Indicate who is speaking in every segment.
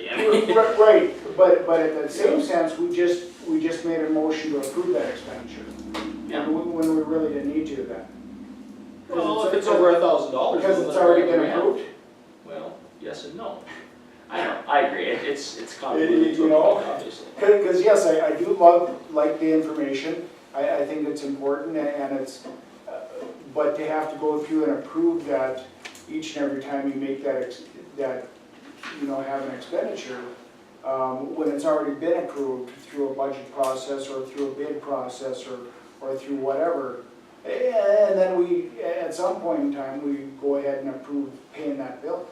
Speaker 1: Right, right, but, but in the same sense, we just, we just made a motion to approve that expenditure.
Speaker 2: Yeah.
Speaker 1: When when we really didn't need to then.
Speaker 2: Well, if it's over a thousand dollars.
Speaker 1: Because it's already been approved.
Speaker 2: Well, yes and no. I know, I agree, It- it's, it's
Speaker 1: You
Speaker 2: convoluted to a
Speaker 1: know?
Speaker 2: point, obviously.
Speaker 1: Because, yes, I, I do love, like the information, I, I think it's important and- and it's, uh, but to have to go through and approve that each and every time you make that, ex- that, you know, have an expenditure, um, when it's already been approved through a budget process or through a bid process or, or through whatever. a- And then we, at some point in time, we go ahead and approve paying that bill.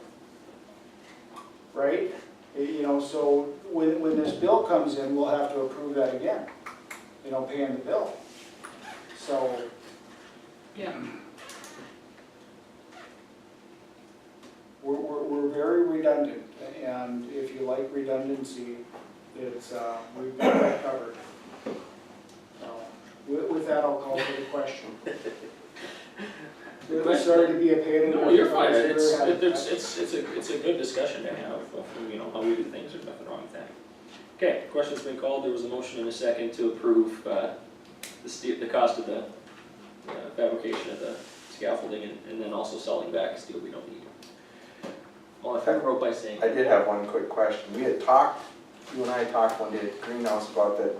Speaker 1: Right? You know, so when, when this bill comes in, we'll have to approve that again, you know, paying the bill. So,
Speaker 2: Yeah.
Speaker 1: we're, we're, we're very redundant, and if you like redundancy, it's, uh, we've got that covered. So, With, with that, I'll call for the question. It was Sorry to be a pain in the.
Speaker 2: No, you're fine,
Speaker 1: I've never
Speaker 2: it's,
Speaker 1: had-
Speaker 2: it's, it's, it's a, it's a good discussion to have, of, you know, how we do things, there's nothing wrong with that. Okay, question's been called, there was a motion and a second to approve, uh, the steel, the cost of the, uh, fabrication of the scaffolding and, and then also selling back steel we don't need. All in favor, vote by saying
Speaker 3: I did have one quick question. We had talked, you and I talked one day at Greenhouse about that,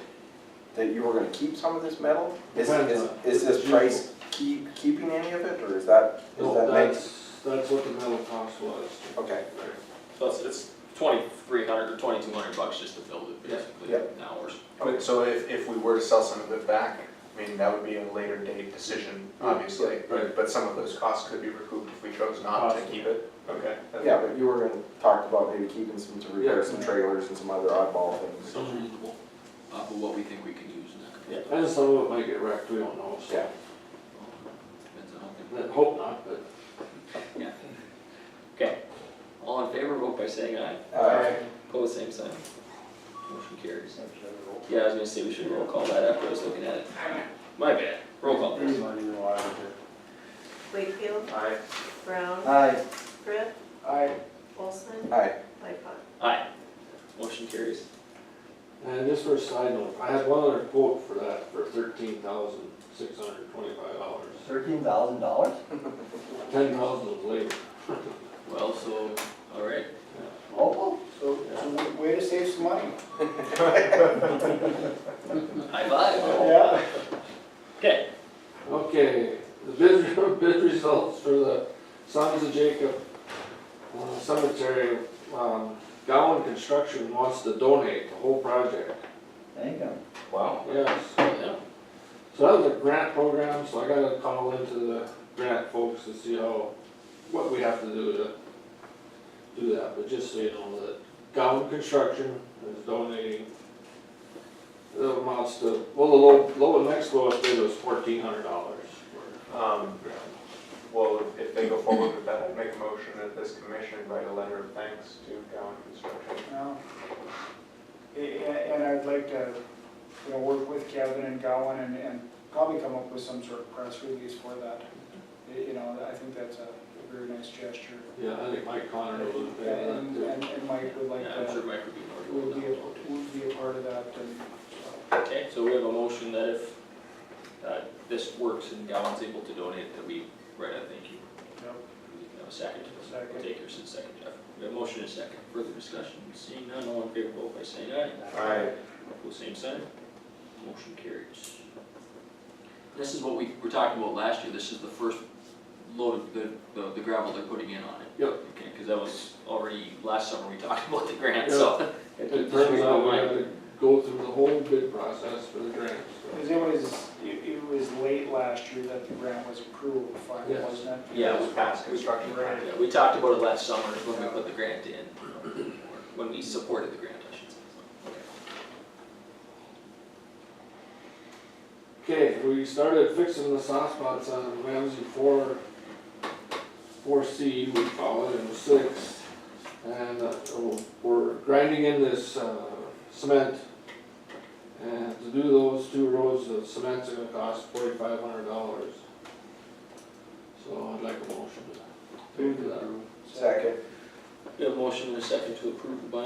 Speaker 3: that you were gonna keep some of this metal? Is,
Speaker 4: Depends
Speaker 3: is,
Speaker 4: on-
Speaker 3: is this price keep, keeping any of it, or is that, is
Speaker 4: No,
Speaker 3: that make?
Speaker 4: that's, that's what the metal cost was.
Speaker 3: Okay,
Speaker 2: So it's, it's twenty-three hundred or twenty-two hundred bucks just to build it, basically,
Speaker 3: Yeah.
Speaker 2: an hour.
Speaker 5: But so if, if we were to sell some of it back, I mean, that would be a later date decision, obviously.
Speaker 4: right.
Speaker 5: But some of those costs could be recouped if we chose not to keep it. Okay. that's-
Speaker 3: yeah, but you were gonna talk about maybe keeping some to repair
Speaker 4: Yeah.
Speaker 3: some trailers and some other oddball things.
Speaker 6: Sounds reasonable,
Speaker 2: uh,
Speaker 6: off of what we think we can use and that kind of
Speaker 4: And some of it might get wrecked, we don't know, so,
Speaker 3: Yeah,
Speaker 6: depends on how they-
Speaker 4: I hope not, but.
Speaker 2: Okay, all in favor, vote by saying aye.
Speaker 3: uh,
Speaker 2: Pose same sign. Motion carries. Yeah, I was gonna say we should roll call that after I was looking at it. My bad, roll call please.
Speaker 7: Wakefield,
Speaker 5: Aye.
Speaker 7: Brown,
Speaker 3: aye,
Speaker 7: Brett,
Speaker 1: I,
Speaker 7: Olson,
Speaker 3: aye,
Speaker 7: Lightfoot.
Speaker 2: Aye. Motion carries.
Speaker 4: And just for a side note, I had one other quote for that for thirteen thousand six hundred twenty-five dollars.
Speaker 8: Thirteen thousand dollars?
Speaker 4: Ten thousand was labor.
Speaker 2: Well, so, all right.
Speaker 8: Opal?
Speaker 1: so, so w- way to save some money.
Speaker 2: High five.
Speaker 1: Yeah.
Speaker 2: Okay,
Speaker 4: Okay, the bid, bid results for the Sons of Jacob uh, Cemetery, um, Gowan Construction wants to donate the whole project,
Speaker 8: Thank you.
Speaker 3: wow.
Speaker 4: yes.
Speaker 2: yeah,
Speaker 4: So that was a grant program, so I gotta call into the grant folks to see how, what we have to do to do that, but just so you know that Gowan Construction is donating the amounts to, well, the low, low, next lowest bid was fourteen hundred dollars
Speaker 5: Um,
Speaker 4: for grant.
Speaker 5: well, if they go forward with that, I'd make a motion that this commission write a letter of thanks to Gowan Construction.
Speaker 1: No. A- a- And I'd like to, you know, work with Kevin and Gowan and, and probably come up with some sort of press release for that. Y- You know, I think that's a very nice gesture.
Speaker 4: Yeah, I think Mike Connor was a fan of
Speaker 1: And,
Speaker 4: that
Speaker 1: and and Mike would like
Speaker 2: yeah, I'm sure
Speaker 1: to,
Speaker 2: Mike would be more
Speaker 1: would
Speaker 2: than
Speaker 1: be, a- would be a part of that and so.
Speaker 2: Okay, so we have a motion that if, uh, this works and Gowan's able to donate, that we write a thank you.
Speaker 1: Yep.
Speaker 2: We can have a second.
Speaker 1: Second.
Speaker 2: Takers and second, Jeff. We have a motion and a second. Further discussion, seeing none, all in favor, vote by saying aye.
Speaker 5: Aye.
Speaker 2: Pose same sign. Motion carries. This is what we were talking about last year, this is the first load of the, the- the gravel they're putting in on it.
Speaker 4: Yep.
Speaker 2: Okay, cause that was already, last summer we talked about the grant, so.
Speaker 4: too. It turns out we had to go through the whole bid process for the grant, so.
Speaker 1: Because it was, it it was late last year that the grant was approved, finally,
Speaker 4: Yes.
Speaker 1: wasn't it?
Speaker 2: Yeah, it was
Speaker 5: Past construction.
Speaker 1: Right.
Speaker 2: Yeah, we talked about it last summer when we put the grant in, or when we supported the grant, I should say.
Speaker 4: Okay, we started fixing the soft spots on Ramsey four, four C, we call it, and six. And uh, we're grinding in this uh, cement. And to do those two rows of cement's gonna cost forty-five hundred dollars. So I'd like a motion to pay for that.
Speaker 3: Second.
Speaker 2: We have a motion and a second to approve the buying